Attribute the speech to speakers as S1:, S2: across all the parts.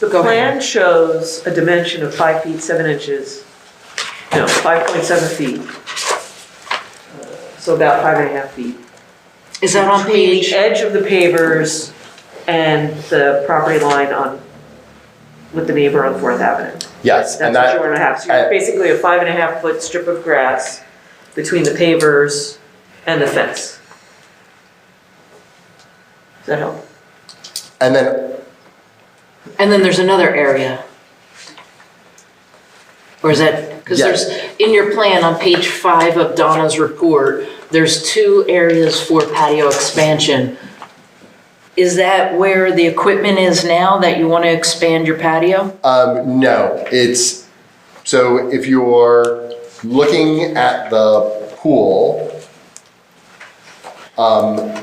S1: The
S2: Go ahead.
S1: plan shows a dimension of five feet, seven inches, no, five point seven feet. Uh, So about five and a half feet.
S2: Is that on
S1: Between
S2: page?
S1: the edge of the pavers and the property line on, with the neighbor on Fourth Avenue.
S3: Yes, and
S1: That's what you
S3: that,
S1: want to have, so you're
S3: I-
S1: basically a five and a half foot strip of grass between the pavers and the fence. Does that help?
S3: and then,
S2: And then there's another area. Or is that, because
S3: Yeah.
S2: there's, in your plan on page five of Donna's report, there's two areas for patio expansion. Is that where the equipment is now that you want to expand your patio?
S3: um, no, it's, so if you're looking at the pool, um,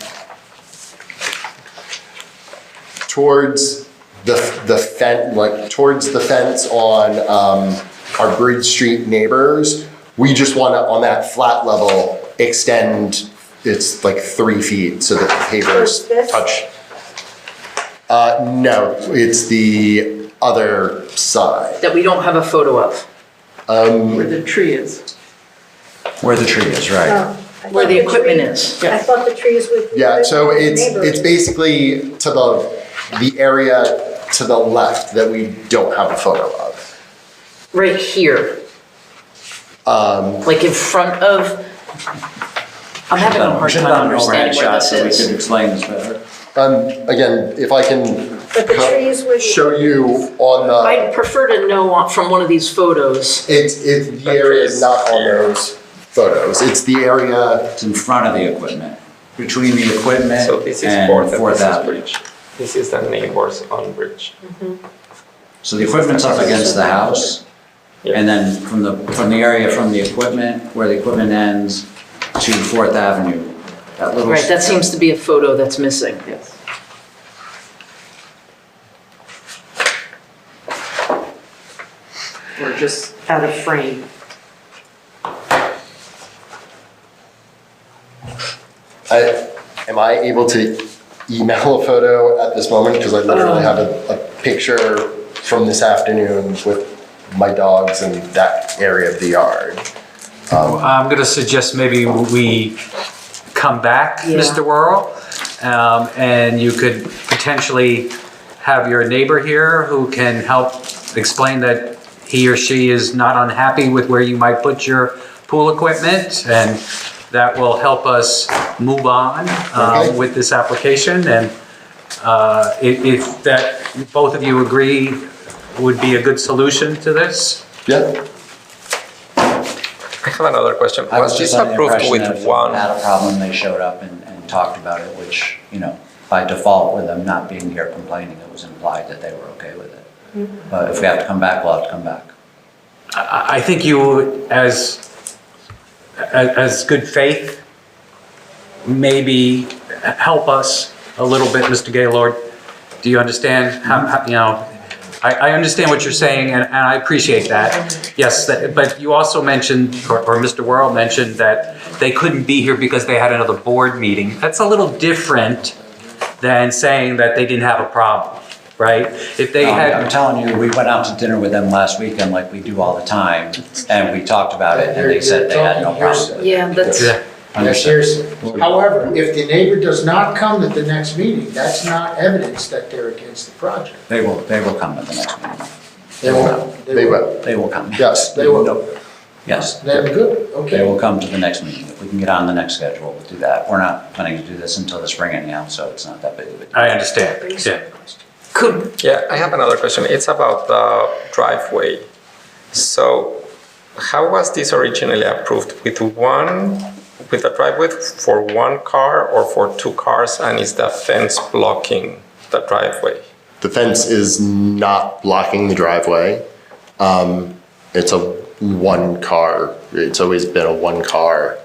S3: towards the, the fence, like, towards the fence on, um, our Bridge Street neighbors, we just wanna, on that flat level, extend, it's like three feet so that the pavers
S4: Towards this?
S3: touch. Uh, no, it's the other side.
S2: That we don't have a photo of,
S1: Where the tree is.
S5: Where the tree is, right.
S4: Oh, I
S2: where
S4: thought
S2: the equipment
S4: tree-
S2: is.
S4: I thought the trees would.
S3: Yeah, so it's, it's
S4: basically
S3: basically to the, the area to the left that we don't have a photo of.
S2: Right here. Um. Like in front of, I'm having a hard
S5: Should've
S2: time
S5: done an overhead
S2: understanding where this
S5: shot so we
S2: is.
S5: could Explain this better.
S3: Um, again, if I can
S4: But the trees would.
S3: show you on
S2: I'd
S3: the,
S2: prefer to know on- from one of these photos.
S3: it's, it's, the area is not on those photos. It's the area,
S5: It's in front of the equipment, between the equipment
S6: So this is
S5: and
S6: Fourth
S5: Fourth
S6: Avenue
S5: Avenue.
S6: Bridge. This is the neighbors on bridge.
S5: So the equipment's up against the house,
S6: Yeah.
S5: and then from the, from the area from the equipment, where the equipment ends, to Fourth Avenue, that little.
S2: Right, that seems to be a photo that's missing.
S1: Yes. Or just out of frame.
S3: I, am I able to email a photo at this moment? Because I literally have a, a picture from this afternoon with my dogs and that area of the yard.
S7: I'm going to suggest maybe we come back,
S2: Yeah.
S7: Mr. Worrell, um, and you could potentially have your neighbor here who can help explain that he or she is not unhappy with where you might put your pool equipment, and that will help us move on um,
S3: Okay.
S7: with this application. And uh, i- if that, both of you agree would be a good solution to this?
S3: Yeah,
S6: I have another question.
S5: I was
S6: Was this
S5: just under the
S6: approved
S5: impression that if
S6: with
S5: someone
S6: one?
S5: had a problem, they showed up and, and talked about it, which, you know, by default, with them not being here complaining, it was implied that they were okay with it. But if we have to come back, we'll have to come back.
S7: I I think you, as, as as good faith, maybe help us a little bit, Mr. Gaylord. Do you understand? how- how- You know, I, I understand what you're saying, and and I appreciate that. Yes, that- but you also mentioned, or or Mr. Worrell mentioned, that they couldn't be here because they had another board meeting. That's a little different than saying that they didn't have a problem, right? If they
S5: No,
S7: had.
S5: I'm telling you, we went out to dinner with them last weekend like we do all the time, and we talked about it, and they said they had no problem. with it.
S2: Yeah, that's,
S7: Yeah.
S8: Yes,
S5: Understood.
S8: there's, however, if the neighbor does not come at the next meeting, that's not evidence that they're against the project.
S5: They will, they will come at the next meeting.
S8: They will.
S3: they will.
S5: They will come.
S3: Yes,
S8: They will.
S5: Yes,
S8: Then good,
S5: they
S8: okay.
S5: will come to the next meeting. If we can get on the next schedule, we'll do that. We're not planning to do this until the spring anyhow, so it's not that big of a deal.
S7: I understand, yeah.
S2: could,
S6: Yeah, I have another question. It's about the driveway. So how was this originally approved? With one, with a driveway for one car or for two cars? And is the fence blocking the driveway?
S3: The fence is not blocking the driveway. Um, it's a one car, it's always been a one car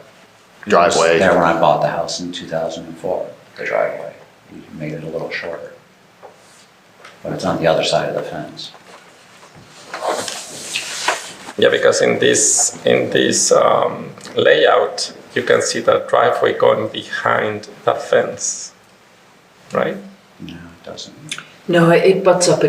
S3: driveway.
S5: There when I bought the house in 2004, the driveway. We made it a little shorter. But it's on the other side of the fence.
S6: Yeah, because in this in this um, layout, you can see the driveway going behind the fence, right?
S5: No, it doesn't.
S2: no, it butts up